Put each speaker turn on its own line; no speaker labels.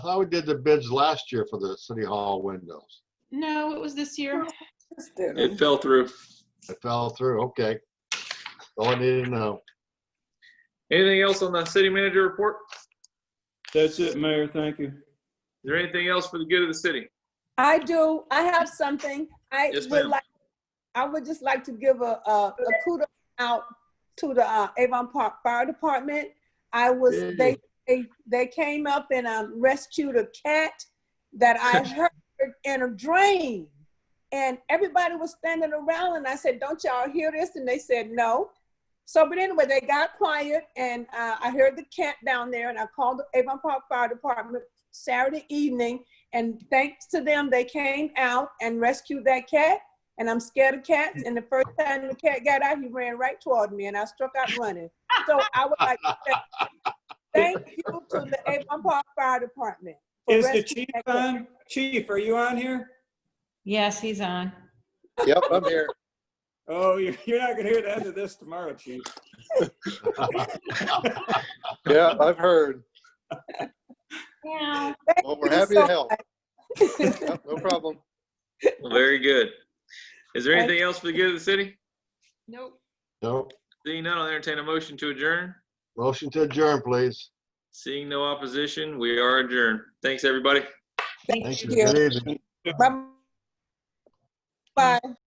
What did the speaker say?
how we did the bids last year for the city hall windows.
No, it was this year.
Just did
It
it.
fell through.
It fell through, okay. All I need to know.
Anything else on the city manager report? Is
That's it, Mayor. Thank you.
there anything else for the good of the city?
I do, I have something. I
Yes,
would
ma'am.
like, I would just like to give a, a a kudos out to the uh, Avon Park Fire Department. I was,
Yay.
they, they, they came up and um, rescued a cat that I heard in a dream. And everybody was standing around and I said, don't y'all hear this? And they said, no. So, but anyway, they got quiet and uh, I heard the cat down there and I called the Avon Park Fire Department Saturday evening and thanks to them, they came out and rescued that cat. And I'm scared of cats. And the first time the cat got out, he ran right toward me, and I struck out running. So I would like to say thank you to the Avon Park Fire Department. for
Is the
rescuing
chief
that cat.
on? Chief, are you on here?
Yes, he's on.
Yep, I'm here.
Oh, you're, you're not gonna hear the end of this tomorrow, chief.
Yeah, I've heard.
Yeah.
Thank
Well, we're
you
happy
so
to help. Yep, No problem.
Very good. Is there
Thank-
anything else for the good of the city?
Nope.
No,
Seeing none, I'll entertain a motion to adjourn.
motion to adjourn, please.
Seeing no opposition, we are adjourned. Thanks, everybody.
Thank
Thank you.
you.
Good evening.
Bye. Bye.